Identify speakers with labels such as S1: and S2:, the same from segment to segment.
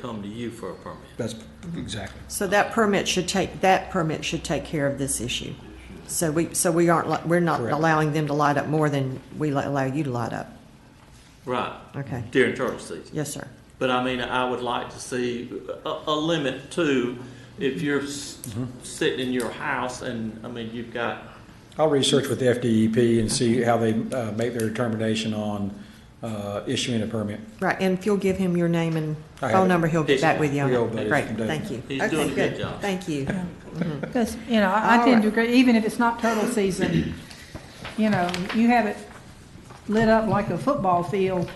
S1: come to you for a permit.
S2: That's exactly.
S3: So that permit should take, that permit should take care of this issue. So we, so we aren't, li- we're not
S2: Correct.
S3: allowing them to light up more than we li- allow you to light up.
S1: Right.
S3: Okay.
S1: During turtle season.
S3: Yes, sir.
S1: But I mean, I would like to see a, a limit too, if you're s- sitting in your house and, I mean, you've got,
S2: I'll research with the FDEP and see how they uh, make their determination on uh, issuing a permit.
S3: Right, and if you'll give him your name and
S2: I have
S3: phone
S2: it.
S3: number, he'll get
S1: Yes,
S3: back with you on
S2: we all got
S3: it.
S2: it
S3: Great,
S2: from David.
S3: thank you.
S1: He's
S3: Okay,
S1: doing a good job.
S3: Thank you.
S4: Because, you know, I I
S3: All right.
S4: tend to agree, even if it's not turtle season, you know, you have it lit up like a football field,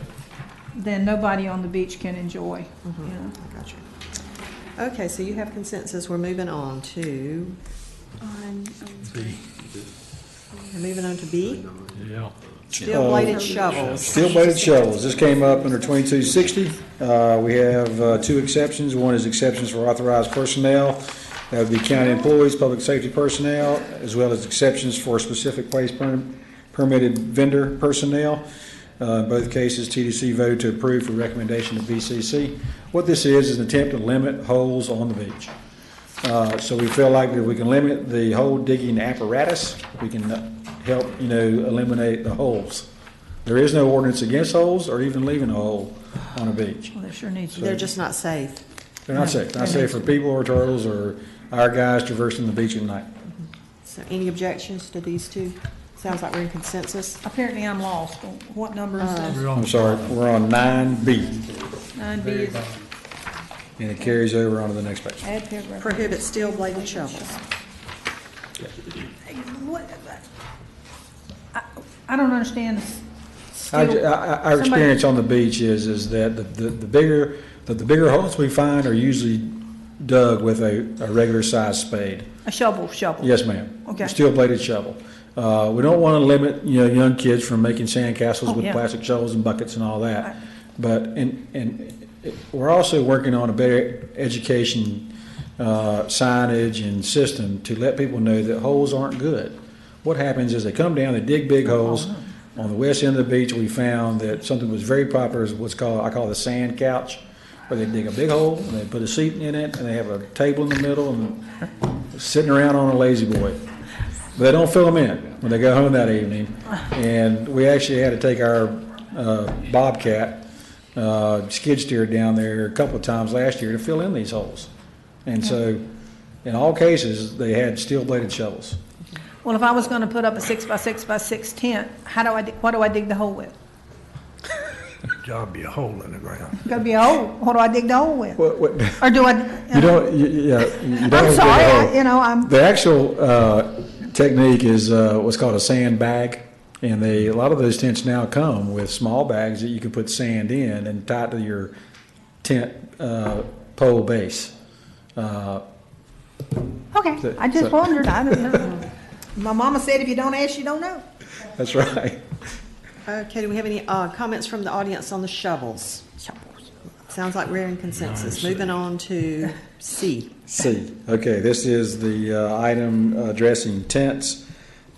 S4: then nobody on the beach can enjoy, you know.
S3: Gotcha. Okay, so you have consensus, we're moving on to,
S5: on, um,
S3: we're moving on to B,
S6: Yeah.
S3: steel bladed shovels.
S2: Steel bladed shovels, this came up under twenty-two sixty. Uh, we have, uh, two exceptions. One is exceptions for authorized personnel. That would be county employees, public safety personnel, as well as exceptions for specific place per- permitted vendor personnel. Uh, in both cases, TDC voted to approve for recommendation to BCC. What this is, is an attempt to limit holes on the beach. Uh, So we feel like if we can limit the hole digging apparatus, we can uh, help, you know, eliminate the holes. There is no ordinance against holes or even leaving a hole on a beach.
S4: Well, there sure needs to be.
S3: They're just not safe.
S2: They're not safe, not safe for people or turtles or our guys traversing the beach at night.
S3: So any objections to these two? Sounds like we're in consensus.
S4: Apparently I'm lost. What number is
S6: We're
S4: that?
S6: on
S2: I'm sorry, we're on nine B,
S4: Nine B
S6: very
S4: is
S6: bottom.
S2: and it carries over onto the next page.
S4: add paragraph.
S3: Prohibit steel bladed shovels.
S4: What- I- I don't understand. s-
S2: Our,
S4: still-
S2: our- our
S4: somebody-
S2: experience on the beach is, is that the, the the bigger, that the bigger holes we find are usually dug with a, a regular sized spade.
S4: A shovel, shovel.
S2: Yes, ma'am.
S4: Okay.
S2: Steel bladed shovel. Uh, we don't want to limit, you know, young kids from making sandcastles
S4: Oh,
S2: with
S4: yeah.
S2: plastic shovels and buckets and all
S4: Right.
S2: that. But, and, and it- we're also working on a better education, uh, signage and system to let people know that holes aren't good. What happens is they come down, they dig big holes.
S4: Oh,
S2: On the west end of the beach, we found that something was very popular is what's called, I call the sand couch, where they dig a big hole and they put a seat in it and they have a table in the middle and sitting around on a lazy boy. But they don't fill them in when they go home that evening. And we actually had to take our uh, Bobcat uh, skid steer down there a couple of times last year to fill in these holes. And so, in all cases, they had steel bladed shovels.
S4: Well, if I was gonna put up a six by six by six tent, how do I, dig- what do I dig the hole with?
S6: Job be a hole in the ground.
S4: Gotta be a hole. What do I dig the hole with?
S2: What, what,
S4: Or do I?
S2: you don't, you, you- yeah, you don't. have
S4: Uh-huh. I'm
S2: to dig a
S4: sorry,
S2: hole.
S4: I- you know, I'm,
S2: The actual uh, technique is uh, what's called a sand bag, and they a lot of those tents now come with small bags that you can put sand in and tie to your tent uh, pole base. Uh,
S4: okay, I just wondered, I didn't know. My mama said if you don't ask, you don't know.
S2: that's right.
S3: Okay, do we have any uh, comments from the audience on the shovels? Sounds like we're in consensus. Moving on to C.
S2: C. Okay, this is the uh, item addressing tents.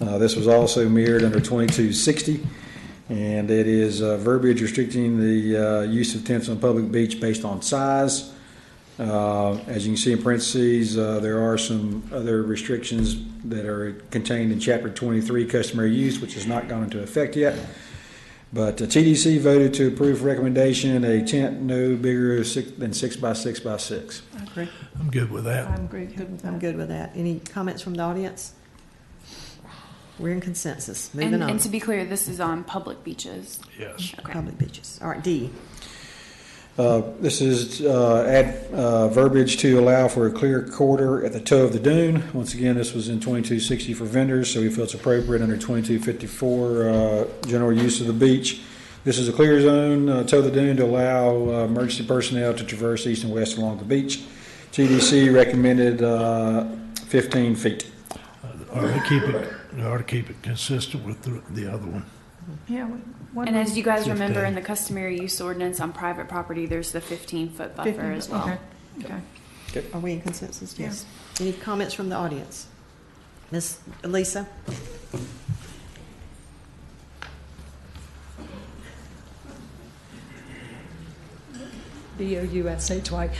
S2: Uh, This was also mirrored under 2260, and it is uh, verbiage restricting the uh, use of tents on public beach based on size. Uh, As you can see in parentheses, uh, there are some other restrictions that are contained in Chapter 23, customary use, which has not gone into effect yet. But the TDC voted to approve recommendation, a tent no bigger six- than six by six by six.
S6: I'm good with that.
S4: I'm good, good with
S3: I'm
S4: that.
S3: good with that. Any comments from the audience? We're in consensus. Moving
S5: and,
S3: on.
S5: and to be clear, this is on public beaches.
S6: Yes.
S5: Okay.
S3: Public beaches. All right, D.
S2: Uh, This is uh, add uh, verbiage to allow for a clear quarter at the toe of the dune. Once again, this was in 2260 for vendors, so we feel it's appropriate under 2254, uh, general use of the beach. This is a clear zone, uh, toe of the dune, to allow uh, emergency personnel to traverse east and west along the beach. TDC recommended uh, 15 feet.
S6: Ought to keep it, ought to keep it consistent with the, the other one.
S4: Yeah. we- what
S5: And as you guys remember, in
S6: Fifteen.
S5: the customary use ordinance on private property, there's the 15 foot buffer
S4: Fifteen,
S5: as well.
S4: okay, Okay.
S3: Are we in consensus?
S4: Yeah.
S3: Yes. Any comments from the audience? Miss Lisa?
S7: B O U S H Y.